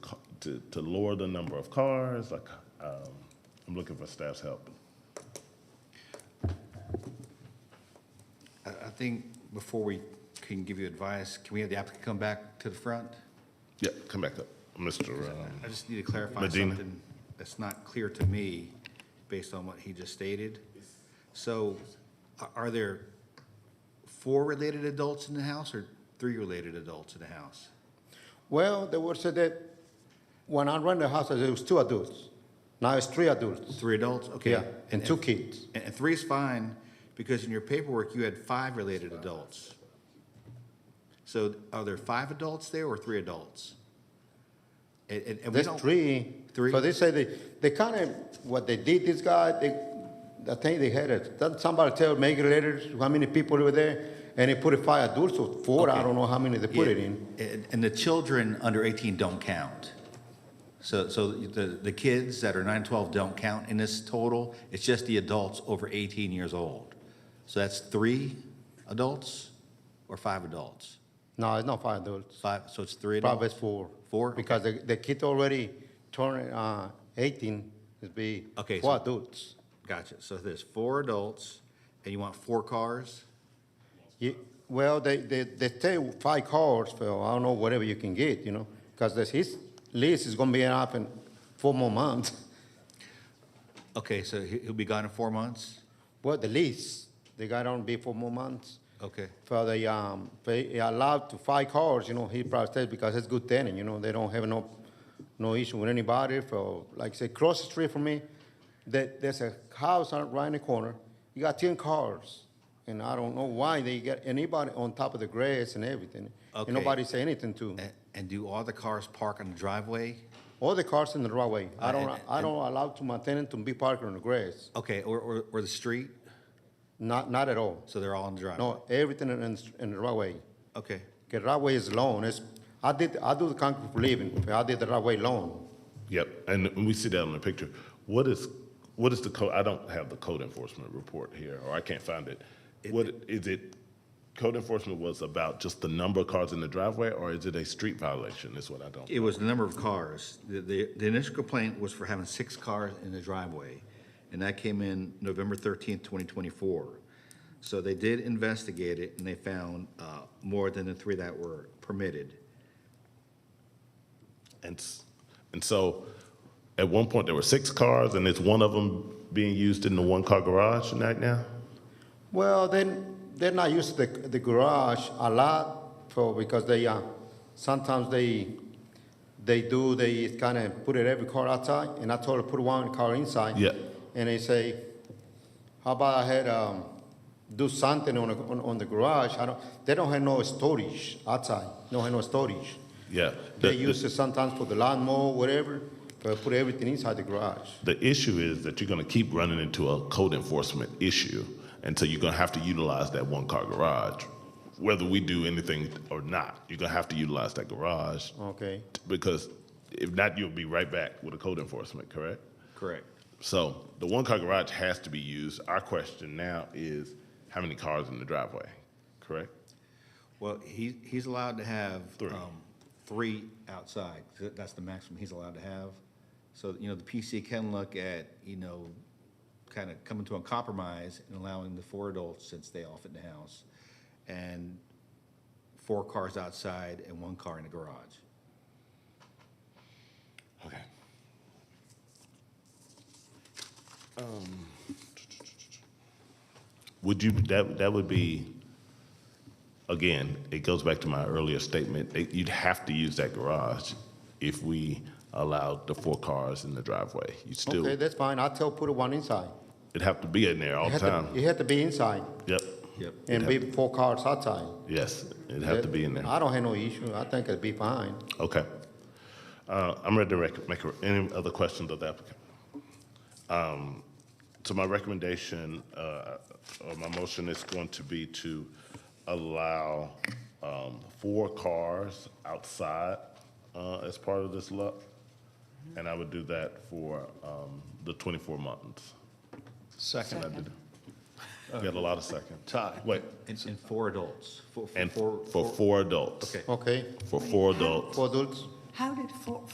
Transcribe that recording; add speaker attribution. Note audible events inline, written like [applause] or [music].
Speaker 1: to, to lower the number of cars, like, um, I'm looking for staff's help.
Speaker 2: I, I think before we can give you advice, can we have the applicant come back to the front?
Speaker 1: Yeah, come back up, Mr. um,
Speaker 2: I just need to clarify
Speaker 1: Medina.
Speaker 2: something that's not clear to me based on what he just stated. So a- are there four related adults in the house or three related adults in the house?
Speaker 3: Well, they would say that when I rent the house, it was two adults. Now it's three adults.
Speaker 2: Three adults, okay.
Speaker 3: Yeah, and two kids.
Speaker 2: And, and three is fine, because in your paperwork, you had five related adults. So are there five adults there or three adults? And, and, and we
Speaker 3: There's
Speaker 2: don't.
Speaker 3: three.
Speaker 2: Three.
Speaker 3: So they say they, they kind of, what they did, this guy, they, I think they had it. Then somebody tell, make it letters, how many people were there? And they put it five adults or four, I
Speaker 2: Okay.
Speaker 3: don't know how many they put it in.
Speaker 2: And, and the children under eighteen don't count. So, so the, the kids that are nine, twelve don't count in this total. It's just the adults over eighteen years old. So that's three adults or five adults?
Speaker 3: No, it's not five adults.
Speaker 2: Five, so it's three adults?
Speaker 3: Probably it's four.
Speaker 2: Four?
Speaker 3: Because the, the kid already turned, uh, eighteen, it'd be
Speaker 2: Okay,
Speaker 3: four
Speaker 2: so-
Speaker 3: adults.
Speaker 2: Gotcha. So there's four adults, and you want four cars?
Speaker 3: Ye- Well, they, they, they take five cars for, I don't know, whatever you can get, you know, because his lease is gonna be up in four more months. [laughs]
Speaker 2: Okay, so he- he'll be gone in four months?
Speaker 3: Well, the lease, they got on be four more months.
Speaker 2: Okay,
Speaker 3: For the, um, they allowed to five cars, you know, he probably said, because it's good tenant, you know, they don't have no, no issue with anybody for, like, say, cross the street from me, that, there's a house out right in the corner, you got ten cars. And I don't know why they got anybody on top of the grass and everything.
Speaker 2: Okay.
Speaker 3: And nobody say anything to 'em.
Speaker 2: A- and do all the cars park on the driveway?
Speaker 3: All the cars in the driveway. I
Speaker 2: Uh,
Speaker 3: don't,
Speaker 2: and-
Speaker 3: I don't allow to my tenant to be parked on the grass.
Speaker 2: Okay, or, or, or the street?
Speaker 3: Not, not at all.
Speaker 2: So they're all on the driveway?
Speaker 3: No, everything in, in in the driveway.
Speaker 2: Okay,
Speaker 3: The driveway is long. It's, I did, I do the concrete for living. I did the driveway long.
Speaker 1: Yep, and we see that on the picture. What is, what is the code, I don't have the code enforcement report here, or I can't find it. What, is it, code enforcement was about just the number of cars in the driveway, or is it a street violation, is what I don't?
Speaker 2: it was the number of cars. The, the, the initial complaint was for having six cars in the driveway, and that came in November thirteenth, twenty twenty-four. So they did investigate it, and they found, uh, more than the three that were permitted.
Speaker 1: And, s- and so, at one point, there were six cars, and it's one of them being used in the one-car garage right now?
Speaker 3: Well, then, then I use the, the garage a lot for, because they, uh, sometimes they, they do, they kind of put it every car outside, and I told her, put one car inside.
Speaker 1: Yeah.
Speaker 3: And they say, how about I had, um, do something on, the- on, on the garage, I don't, they don't have no storage outside, don't have no storage.
Speaker 1: Yeah. The-
Speaker 3: They
Speaker 1: the-
Speaker 3: use it sometimes for the lawnmower, whatever, but put everything inside the garage.
Speaker 1: The issue is that you're going to keep running into a code enforcement issue, and so you're going to have to utilize that one car garage, whether we do anything or not. You're going to have to utilize that garage
Speaker 3: Okay,
Speaker 1: because if not, you'll be right back with a code enforcement, correct?
Speaker 2: Correct.
Speaker 1: So the one car garage has to be used. Our question now is how many cars in the driveway, correct?
Speaker 2: Well, he, he's allowed to have,
Speaker 1: Three.
Speaker 2: um, three outside, 'cause that's the maximum he's allowed to have. So, you know, the PC can look at, you know, kind of coming to a compromise and allowing the four adults since they off in the house, and four cars outside and one car in the garage.
Speaker 1: Okay.
Speaker 3: Um.
Speaker 1: Would you, that, that would be, again, it goes back to my earlier statement, that you'd have to use that garage if we allowed the four cars in the driveway. You still,
Speaker 3: okay,
Speaker 1: it'd
Speaker 3: that's fine, I tell put one inside.
Speaker 1: have to be in there all the
Speaker 3: It had to-
Speaker 1: time.
Speaker 3: It had to be inside.
Speaker 1: Yep,
Speaker 2: Yep.
Speaker 3: And be four cars outside.
Speaker 1: yes, it'd have to be in there.
Speaker 3: I don't have no issue. I think it'd be fine.
Speaker 1: Okay. Uh, I'm ready to rec- make, a- any other questions of the applicant? Um, So my recommendation, uh, or my motion is going to be to allow um, four cars outside uh, as part of this lot, and I would do that for um, the 24 months. Second. Got a lot of seconds. Tie. Wait,
Speaker 2: And, and four adults, four,
Speaker 1: and
Speaker 2: four.
Speaker 1: for four adults.
Speaker 2: Okay.
Speaker 3: Okay,
Speaker 1: For four adults.
Speaker 3: four adults.
Speaker 4: How did four,